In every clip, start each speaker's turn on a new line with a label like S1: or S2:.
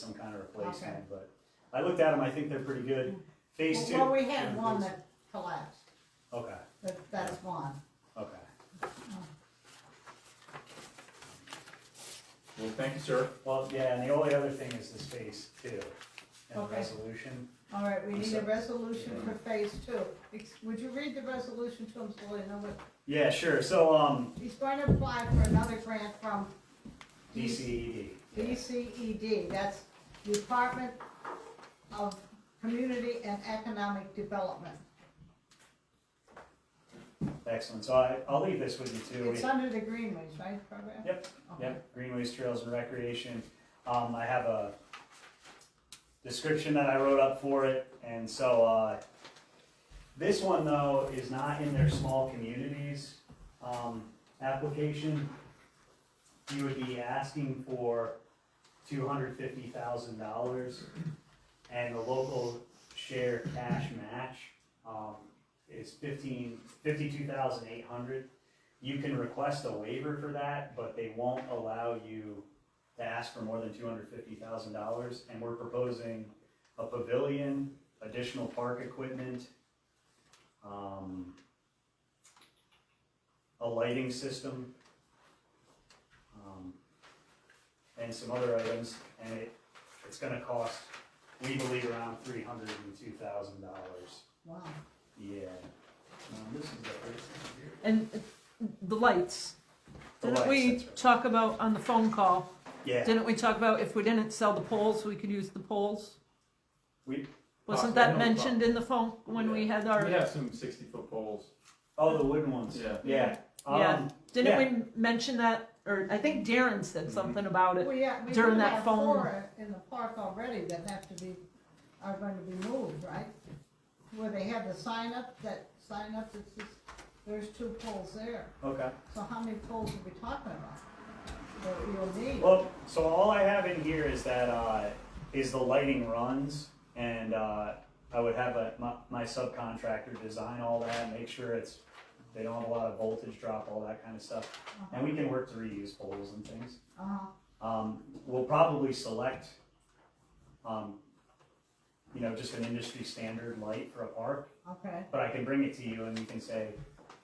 S1: some kind of replacement, but I looked at them, I think they're pretty good. Phase two.
S2: Mm. Well, we had one that collapsed,
S1: Okay,
S2: that, that's one.
S1: okay.
S3: Well, thank you, sir.
S1: Well, yeah, and the only other thing is this phase two and the
S2: Okay.
S1: resolution.
S2: All right, we
S1: I'm
S2: need a
S1: sorry.
S2: resolution for phase two. Ex- Would you read the resolution to him, so we know what,
S1: Yeah, sure, so, um,
S2: he's going to apply for another grant from
S1: DCED. E
S2: DCED, E that's Department of Community and Economic Development.
S1: Excellent, so I, I'll leave this with you too.
S2: It's under the Greenways, right, program?
S1: Yep,
S2: Okay.
S1: Yep, greenways, trails, and recreation. Um, I have a description that I wrote up for it, and so, uh, this one though is not in their small communities, um, application. You would be asking for two hundred fifty thousand dollars, and the local share cash match, um, is fifteen, fifty-two thousand eight hundred. You can request a waiver for that, but they won't allow you to ask for more than two hundred fifty thousand dollars, and we're proposing a pavilion, additional park equipment, um, a lighting system, um, and some other items, and it, it's gonna cost, we believe, around three hundred and two thousand dollars.
S2: Oh, Wow.
S1: Yeah. Um, this is the first one here.
S4: And uh, the lights.
S1: The
S4: Didn't
S1: lights,
S4: we
S1: that's right.
S4: talk about on the phone call?
S1: Yeah.
S4: Didn't we talk about if we didn't sell the poles, we could use the poles?
S1: We-
S4: Wasn't
S3: Possibly, no
S4: that mentioned in the phone when we had
S3: We
S4: our,
S3: have some sixty-foot poles.
S1: Oh, the wooden ones.
S3: Yeah.
S1: Yeah.
S4: Yeah.
S1: Um,
S4: didn't we mention that, or I think Darren said
S3: Mhm.
S4: something about it?
S2: Well, yeah, we do
S4: During that
S2: have
S4: phone-
S2: four in the park already that have to be, are going to be moved, right? Where they have the sign up, that sign up, it's just, there's two poles there.
S1: Okay.
S2: So how many poles are we talking about E that you'll need?
S1: Well, so all I have in here is that uh, is the lighting runs, and uh, I would have a, my, my subcontractor design all that, make sure it's they don't have a lot of voltage drop, all that kind of stuff,
S4: Uh-huh.
S1: and we can work to reuse poles and things.
S2: Uh-huh.
S1: Um, we'll probably select, um, you know, just an industry standard light for a park,
S2: Okay,
S1: But I can bring it to you and you can say,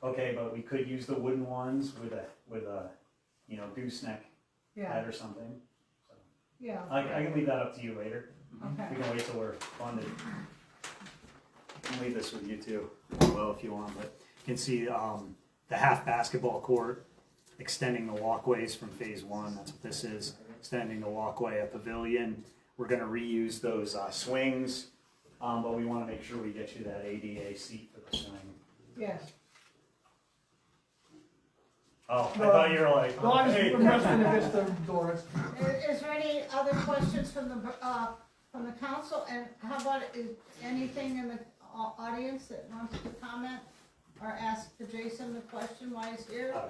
S1: okay, but we could use the wooden ones with a, with a, you know, gooseneck
S2: yeah,
S1: head or something.
S2: yeah,
S1: I, I can leave that up to you later.
S2: okay.
S1: We can wait till we're funded. I can leave this with you too, as well, if you want, but you can see, um, the half basketball court, extending the walkways from phase one, that's what this is, extending the walkway, a pavilion. We're gonna reuse those, uh, swings, um, but we wanna make sure we get you that ADA seat for the swing.
S2: Yes,
S1: Oh, I thought you were like,
S5: Well, I was
S1: hey.
S5: resting against the Doris.
S2: is, is there any other questions from the, uh, from the council, and how about, is anything in the au- audience that wants to comment? Or ask Jason the question while he's here?
S1: Oh,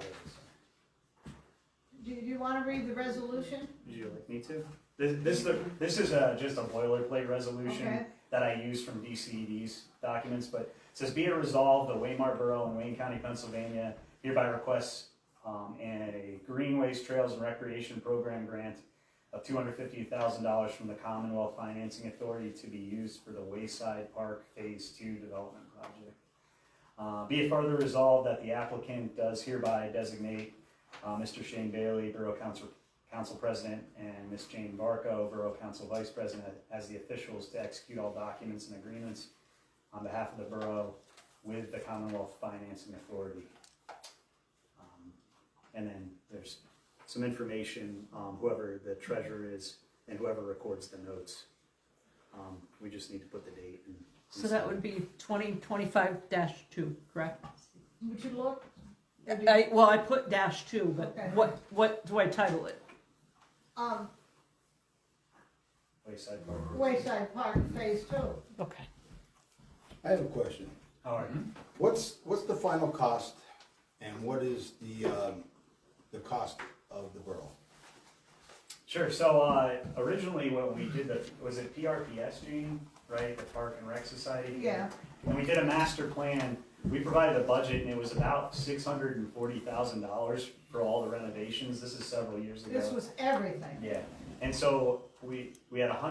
S1: yeah.
S2: Do you wanna read the resolution?
S1: Would you like me to? This, this, is the- this is a, just a boilerplate resolution
S2: Okay.
S1: that I use from DCED's documents, but it says be it resolved, the Waymart Borough in Wayne County, Pennsylvania hereby requests, um, a Greenways Trails and Recreation Program grant of two hundred fifty thousand dollars from the Commonwealth Financing Authority to be used for the Wayside Park Phase Two Development Project. Uh, be it further resolved that the applicant does hereby designate, uh, Mr. Shane Bailey, Borough Council council president and Ms. Jane Barco, Borough Council Vice President, as the officials to execute all documents and agreements on behalf of the borough with the Commonwealth Financing Authority. Um, And then there's some information, um, whoever the treasurer is and whoever records the notes. Um, We just need to put the date and.
S4: So that would be twenty twenty-five dash two, correct?
S2: Would you look? Or do you-
S4: I, well, I put dash two, but
S2: Okay.
S4: what, what do I title it?
S2: Um,
S1: Wayside Park.
S2: Wayside Park Phase Two,
S4: Okay.
S6: I have a question.
S1: All right.
S6: What's, what's the final cost and what is the, um, the cost of the borough?
S1: Sure, so, uh, originally when we did the, was it PRPS, Gene, right, the Park and Rec Society?
S2: yeah,
S1: When we did a master plan, we provided a budget and it was about six hundred and forty thousand dollars for all the renovations. This is several years ago.
S2: this was everything.
S1: Yeah, and so we, we had a hundred